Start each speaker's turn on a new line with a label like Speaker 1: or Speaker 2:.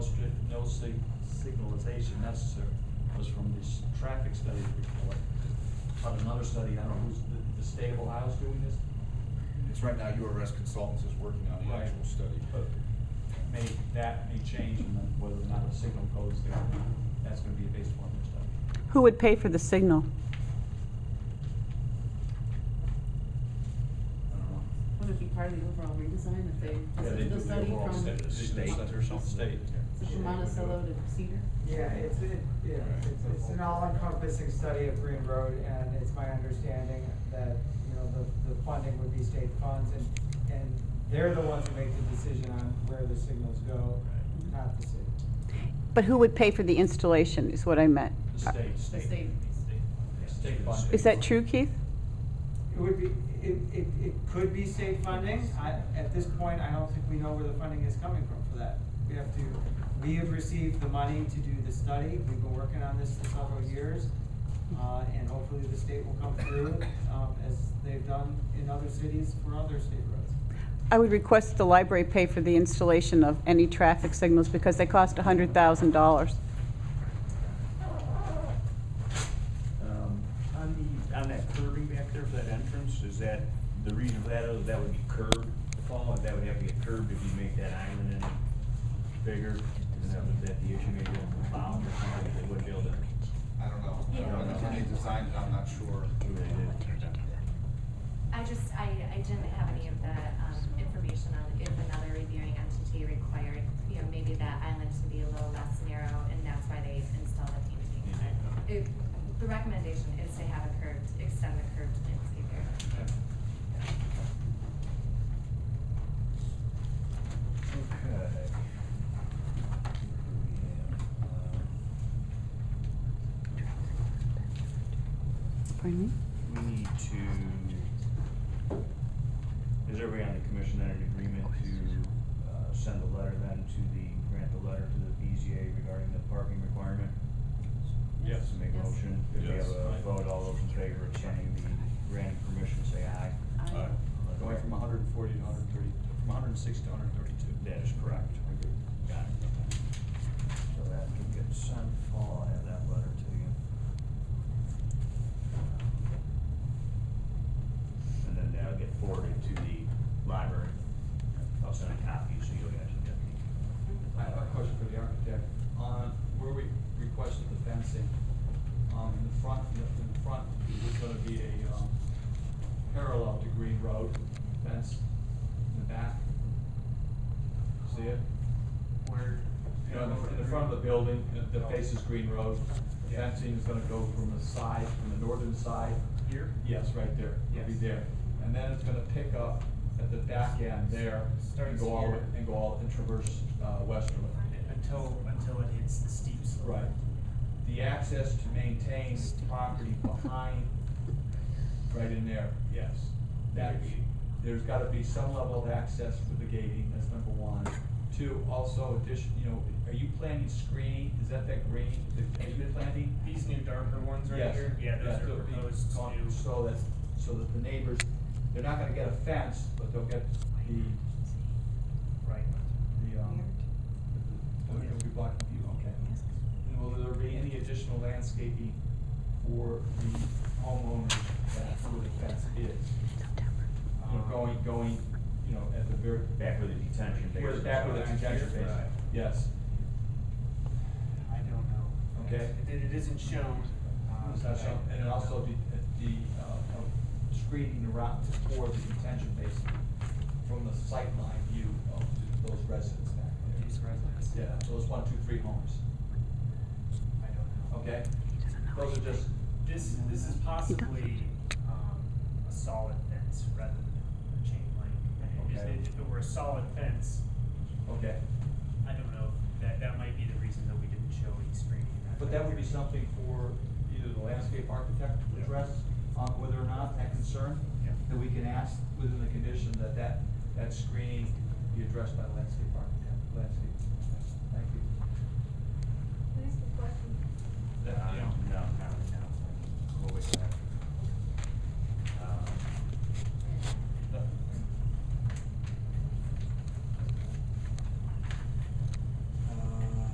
Speaker 1: sig- signalization necessary was from this traffic study report. But another study, I don't know, who's, the, the state of Ohio's doing this?
Speaker 2: It's right now URS Consultants is working on the
Speaker 1: Right.
Speaker 2: actual study.
Speaker 1: But May, that may change and then whether or not the signal goes there, or not, that's gonna be based upon their study.
Speaker 3: Who would pay for the signal?
Speaker 1: I don't know.
Speaker 4: Would it be part of the overall redesign if they,
Speaker 1: Yeah,
Speaker 4: is
Speaker 1: they
Speaker 4: it
Speaker 1: do
Speaker 4: the
Speaker 1: the
Speaker 4: study
Speaker 1: overall
Speaker 4: from?
Speaker 1: study, the state or something. State.
Speaker 4: Is it from Monticello to Cedar?
Speaker 5: Yeah, it's, it, yeah, it's, it's an all-encompassing study of Green Road, and it's my understanding that, you know, the, the funding would be state funds, and, and they're the ones who make the decision on where the signals go, not the city.
Speaker 3: But who would pay for the installation is what I meant.
Speaker 1: The state, state.
Speaker 4: state.
Speaker 1: State funding.
Speaker 3: Uh, Is that true, Keith?
Speaker 5: It would be, it, it, it could be state funding, I, at this point, I don't think we know where the funding is coming from for that. We have to, we have received the money to do the study, we've been working on this for several years, uh, and hopefully the state will come through, um, as they've done in other cities for other state roads.
Speaker 3: I would request the library pay for the installation of any traffic signals because they cost $100,000.
Speaker 6: Um, On the, on that curving back there for that entrance, is that, the reason for that, is that would be curved, Paul, and that would have to get curved if you make that island any bigger? Is that, was that the issue, maybe on the bound or something, they would build it?
Speaker 2: I don't know.
Speaker 7: Yeah.
Speaker 2: When they designed it, I'm not sure.
Speaker 7: I just, I, I didn't have any of the, um, information on if another reviewing entity required, you know, maybe that island to be a little less narrow, and that's why they installed a painting. It, the recommendation is to have a curved, extend the curved landscape area.
Speaker 6: Okay.
Speaker 3: Pardon me?
Speaker 6: We need to, is everybody on the commission under an agreement to, uh, send a letter then to the, grant the letter to the BZA regarding the parking requirement?
Speaker 1: Yes.
Speaker 6: To make a
Speaker 7: Yes.
Speaker 6: motion, if we have
Speaker 1: Yes.
Speaker 6: a vote, all those in favor of signing the grant permission, say aye.
Speaker 4: Aye.
Speaker 6: Going from hundred and forty to hundred and thirty, from hundred and sixty to hundred and thirty-two. That is correct. Got it. So that can get sent, Paul, I have that letter to you. And then that'll get forwarded to the library. I'll send a copy, so you'll actually get the.
Speaker 8: I have a question for the architect. On where we requested the fencing, um, in the front, in the- in the front, there's gonna be a, um, parallel to Green Road fence in the back. See it?
Speaker 1: Where?
Speaker 8: You know, in the- in the front of the building, the- the face is Green Road. The fencing is gonna go from the side, from the northern side.
Speaker 1: Here?
Speaker 8: Yes, right there. It'll be
Speaker 1: Yes.
Speaker 8: there. And then it's gonna pick up at the back end there. and
Speaker 9: Starts
Speaker 8: go all the-
Speaker 9: here.
Speaker 8: And go all, and traverse, uh, westerly.
Speaker 9: Until, until it hits the steep slope.
Speaker 8: Right. The access to maintain property behind, right in there, yes. That, there's gotta be some level of access with the gating, that's number one. Two, also addition, you know, are you planting screening, is that that green, are you planting?
Speaker 9: These new darker ones right
Speaker 8: Yes.
Speaker 9: here? Yeah, those
Speaker 8: there'll
Speaker 9: are
Speaker 8: be
Speaker 9: proposed
Speaker 8: con-
Speaker 9: new.
Speaker 8: So that, so that the neighbors, they're not gonna get a fence, but they'll get the,
Speaker 9: Right.
Speaker 8: the, um, the- the- it'll be blocking view, okay. And will there be any additional landscaping for the homeowners that who the fence is?
Speaker 9: Uh-huh.
Speaker 8: You
Speaker 9: Um,
Speaker 8: know, going, going, you know, at the very
Speaker 6: Back with the detention basin.
Speaker 8: where the back of the detention
Speaker 9: Right.
Speaker 8: basin, yes.
Speaker 9: I don't know.
Speaker 8: Okay.
Speaker 9: It, it isn't shown. um,
Speaker 8: It's not shown.
Speaker 9: but I-
Speaker 8: And then also the, the, uh, uh, screening around for the detention basin from the sightline view of those residents back there.
Speaker 9: These residents.
Speaker 8: Yeah, those one, two, three homes,
Speaker 9: I don't know.
Speaker 8: okay? Those are just
Speaker 9: This, this is possibly, um, a solid fence rather than a chain link. If
Speaker 8: Okay.
Speaker 9: it- If it were a solid fence,
Speaker 8: Okay,
Speaker 9: I don't know, that, that might be the reason that we didn't show any screening.
Speaker 8: but that would be something for either the landscape architect to address, um, whether or not that concern,
Speaker 9: Yeah.
Speaker 8: that we can ask within the condition that that, that screening be addressed by the landscape architect, landscape. architect. Thank you.
Speaker 9: Um,